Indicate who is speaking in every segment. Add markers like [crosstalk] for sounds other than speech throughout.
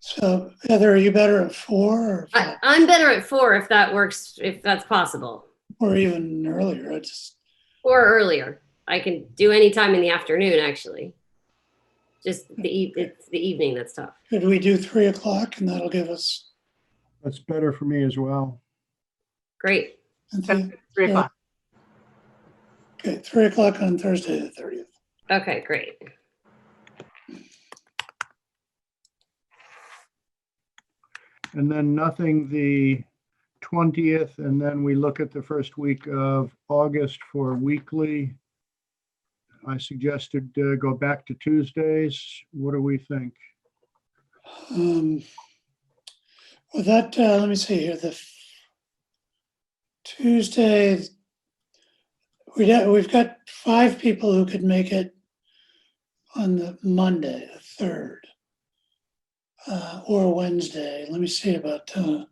Speaker 1: So Heather, are you better at four or,
Speaker 2: I, I'm better at four if that works, if that's possible,
Speaker 1: or even earlier? I just,
Speaker 2: or earlier. I can do any time in the afternoon, actually. Just the e- it's the evening that's tough.
Speaker 1: could we do three o'clock and that'll give us,
Speaker 3: That's better for me as well.
Speaker 2: Great.
Speaker 1: Cynthia?
Speaker 4: Three
Speaker 1: Yeah.
Speaker 4: o'clock.
Speaker 1: Okay, three o'clock on Thursday, the thirtieth.
Speaker 2: Okay, great.
Speaker 3: And then nothing the 20th, and then we look at the first week of August for weekly. I suggested uh, go back to Tuesdays. What do we think?
Speaker 1: Um, Well, that, uh, let me see here, the f- Tuesday, we, don't- we've got five people who could make it on the Monday, the third, uh, or Wednesday. Let me see about, uh,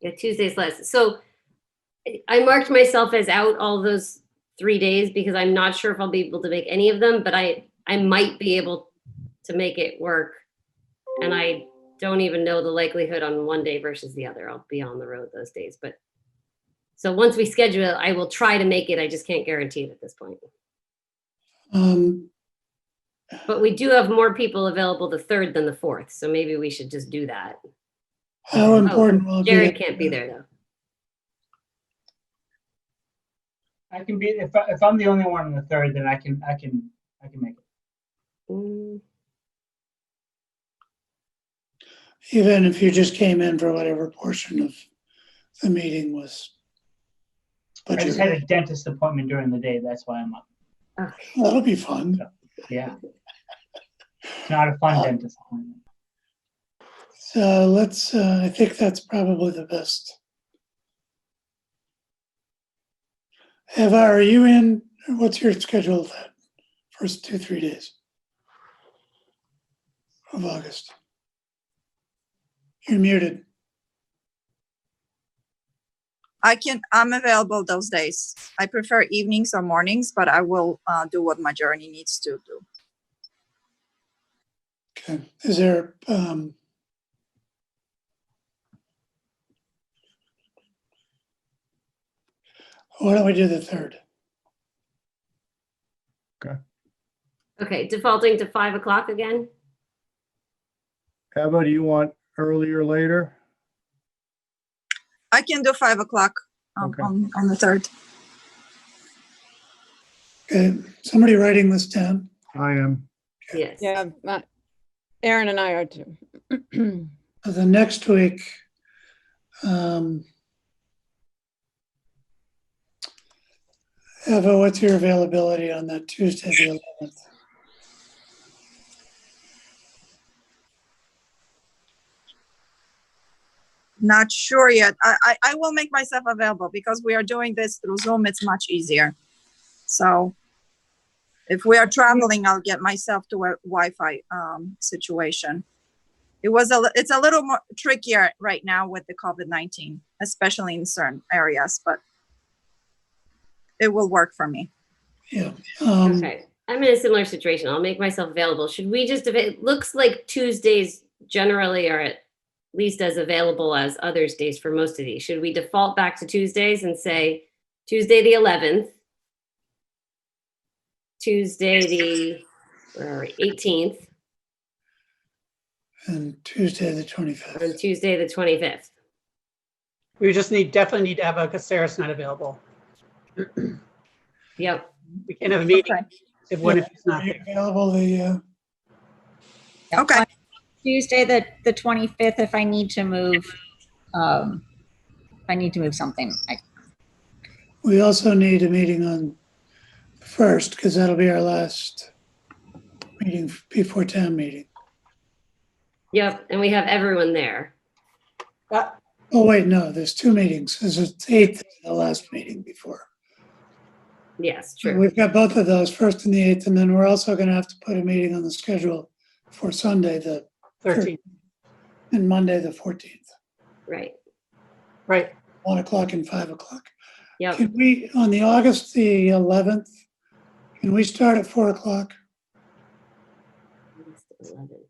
Speaker 2: Yeah, Tuesday's less. So I- I marked myself as out all those three days because I'm not sure if I'll be able to make any of them, but I, I might be able to make it work. And I don't even know the likelihood on one day versus the other. I'll be on the road those days, but so once we schedule it, I will try to make it. I just can't guarantee it at this point.
Speaker 1: um,
Speaker 2: But we do have more people available the third than the fourth, so maybe we should just do that.
Speaker 1: how important will it be? that-
Speaker 2: Jared Oh, can't be there though.
Speaker 5: I can be if I, if I'm the only one on the third, then I can I can I can make it.
Speaker 2: Mm,
Speaker 1: Even if you just came in for whatever portion of the meeting was.
Speaker 5: I
Speaker 1: But
Speaker 5: just had a dentist appointment during the day. That's why I'm up.
Speaker 2: Okay.
Speaker 1: that'll be fun.
Speaker 5: Yeah, it's not a fun
Speaker 1: Um,
Speaker 5: dentist appointment.
Speaker 1: So let's, uh, I think that's probably the best. Eva, are you in, what's your schedule that first two, three days? Of August? You're muted.
Speaker 6: I can, I'm available those days. I prefer evenings or mornings, but I will uh, do what my journey needs to do.
Speaker 1: Okay, is there, um, why don't we do the third?
Speaker 2: Okay, defaulting to five o'clock again?
Speaker 3: Eva, do you want earlier, later?
Speaker 6: I can do five o'clock um,
Speaker 3: Okay.
Speaker 6: on, on the third.
Speaker 1: Okay, somebody writing this down?
Speaker 3: I am.
Speaker 2: Yes.
Speaker 7: Yeah, uh, Aaron and I are too. [clears throat]
Speaker 1: Uh, The next week, um, Eva, what's your availability on that Tuesday, the eleventh?
Speaker 6: Not sure yet. I, I, I will make myself available because we are doing this through Zoom. It's much easier. So if we are traveling, I'll get myself to a Wi-Fi um, situation. It was a, li- it's a little more trickier right now with the COVID-19, especially in certain areas, but it will work for me.
Speaker 1: Yeah, um,
Speaker 2: Okay, I'm in a similar situation. I'll make myself available. Should we just, it looks like Tuesdays generally are at least as available as others days for most of these. Should we default back to Tuesdays and say Tuesday, the 11th? Tuesday, the where are we, 18th
Speaker 1: and Tuesday, the
Speaker 2: and
Speaker 1: twenty-fifth.
Speaker 2: Tuesday, the 25th?
Speaker 8: We just need, definitely need Eva because Sarah's not available.
Speaker 2: Yep.
Speaker 8: We can't have a meeting
Speaker 6: Okay.
Speaker 8: if one of us is
Speaker 1: Are
Speaker 8: not
Speaker 1: you
Speaker 8: there.
Speaker 1: available the, uh,
Speaker 6: Okay.
Speaker 9: Tuesday, the, the 25th, if I need to move, um, if I need to move something, I,
Speaker 1: we also need a meeting on the first, because that'll be our last meeting before town meeting.
Speaker 2: Yep. And we have everyone there.
Speaker 8: But
Speaker 1: Oh, wait, no, there's two meetings. This is eighth, the last meeting before.
Speaker 2: Yes,
Speaker 1: So
Speaker 2: true.
Speaker 1: We've got both of those, first and the eighth, and then we're also gonna have to put a meeting on the schedule for Sunday, the,
Speaker 8: 13,
Speaker 1: and Monday, the fourteenth,
Speaker 2: Right.
Speaker 8: right.
Speaker 1: one o'clock and five o'clock.
Speaker 2: Yep.
Speaker 1: Can we, on the August the eleventh, can we start at four o'clock?
Speaker 2: August 11th.